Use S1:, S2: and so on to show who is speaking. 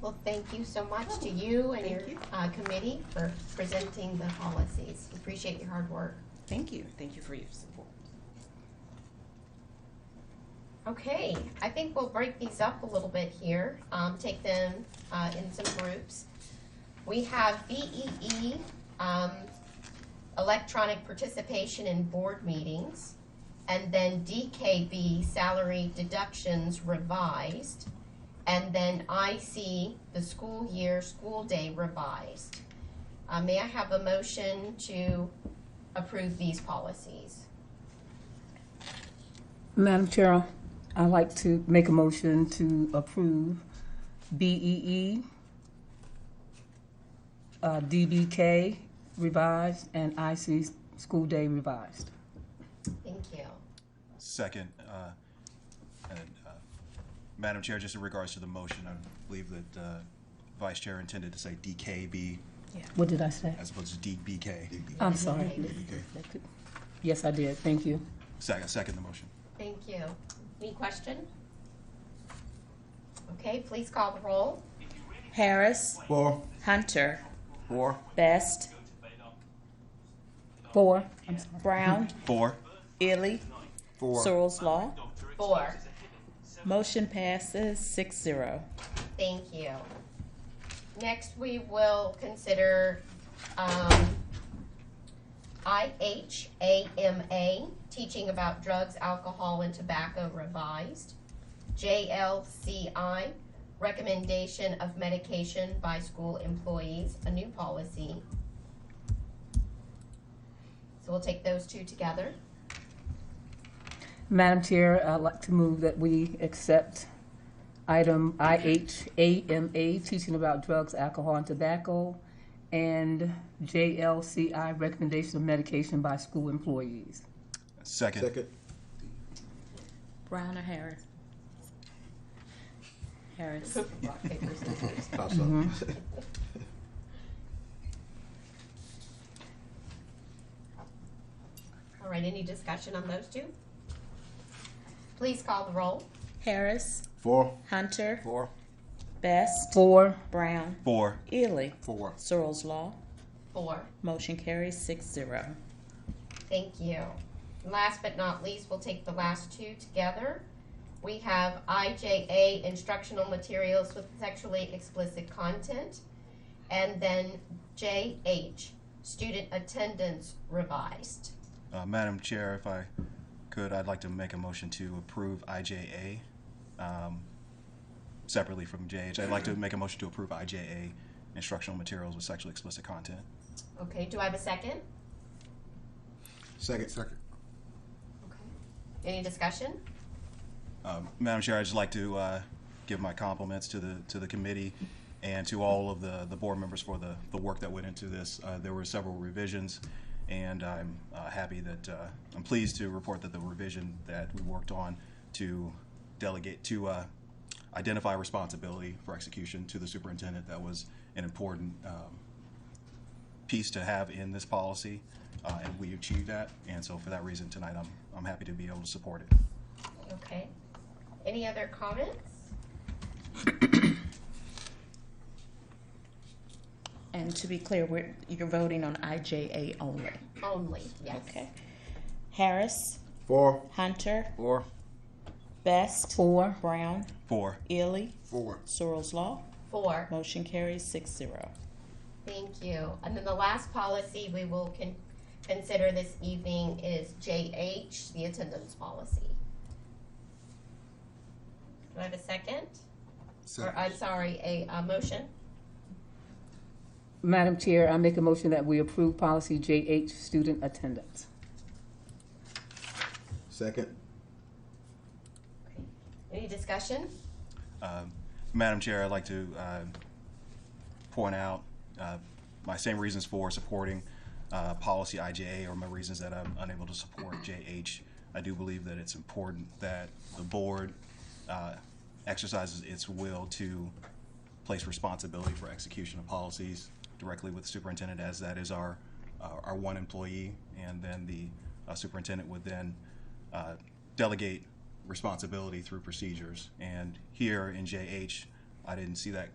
S1: Well, thank you so much to you and your
S2: Thank you.
S1: uh, committee for presenting the policies. Appreciate your hard work.
S2: Thank you. Thank you for your support.
S1: Okay, I think we'll break these up a little bit here, um, take them, uh, in some groups. We have BEE, um, electronic participation in board meetings, and then DKB, salary deductions revised, and then IC, the school year, school day revised. Uh, may I have a motion to approve these policies?
S3: Madam Chair, I'd like to make a motion to approve BEE, uh, DBK revised, and IC school day revised.
S1: Thank you.
S4: Second, uh, and, uh, Madam Chair, just in regards to the motion, I believe that uh, Vice Chair intended to say DKB
S3: What did I say?
S4: as opposed to DBK.
S3: I'm sorry.
S4: DBK.
S3: Yes, I did. Thank you.
S4: Second, second the motion.
S1: Thank you. Any question? Okay, please call the roll.
S5: Harris,
S4: Four.
S5: Hunter,
S4: Four.
S5: Best,
S3: Four. I'm sorry.
S5: Brown,
S4: Four.
S5: Illy, Searles Law.
S1: Four.
S5: Motion passes six zero.
S1: Thank you. Next, we will consider um, IHAMA, teaching about drugs, alcohol, and tobacco revised. JLCI, recommendation of medication by school employees, a new policy. So we'll take those two together.
S3: Madam Chair, I'd like to move that we accept item IHAMA, teaching about drugs, alcohol, and tobacco, and JLCI, recommendation of medication by school employees.
S4: Second.
S6: Second.
S5: Brown or Harris? Harris.
S1: Rock, paper, scissors.
S6: Pass up.
S1: All right, any discussion on those two? Please call the roll.
S5: Harris,
S6: Four.
S5: Hunter,
S6: Four.
S5: Best,
S3: Four.
S5: Brown,
S4: Four.
S5: Illy,
S6: Four.
S5: Searles Law.
S1: Four.
S5: Motion carries six zero.
S1: Thank you. And Last but not least, we'll take the last two together. We have IJA instructional materials with sexually explicit content, and then JH student attendance revised.
S4: Uh, Madam Chair, if I could, I'd like to make a motion to approve IJA um, separately from JH. I'd like to make a motion to approve IJA instructional materials with sexually explicit content.
S1: Okay, do I have a second?
S6: Second. Second.
S1: Okay. Any discussion?
S4: Um, Madam Chair, I'd just like to uh, give my compliments to the, to the committee and to all of the, the board members for the, the work that went into this. Uh, There were several revisions, and I'm uh, happy that, uh, I'm pleased to report that the revision that we worked on to delegate, to uh, identify responsibility for execution to the superintendent, that was an important um, piece to have in this policy, uh, and we achieved that. And so for that reason, tonight, I'm, I'm happy to be able to support it.
S1: Okay. Any other comments?
S5: And to be clear, we're, you're voting on IJA only.
S1: Only, yes.
S5: Okay. Harris,
S6: Four.
S5: Hunter,
S6: Four.
S5: Best,
S3: Four.
S5: Brown,
S4: Four.
S5: Illy,
S6: Four.
S5: Searles Law.
S1: Four.
S5: Motion carries six zero.
S1: Thank you. And then the last policy we will con- consider this evening is JH, the attendance policy. Do I have a second? Or, I'm sorry, a, uh motion?
S3: Madam Chair, I make a motion that we approve policy JH, student attendance.
S6: Second.
S1: Okay. Any discussion?
S4: Um, Madam Chair, I'd like to uh, point out uh, my same reasons for supporting uh, policy IJA or my reasons that I'm unable to support JH. I do believe that it's important that the board uh, exercises its will to place responsibility for execution of policies directly with the superintendent, as that is our, our our one employee. And then the uh, superintendent would then uh, delegate responsibility through procedures. And here in JH, I didn't see that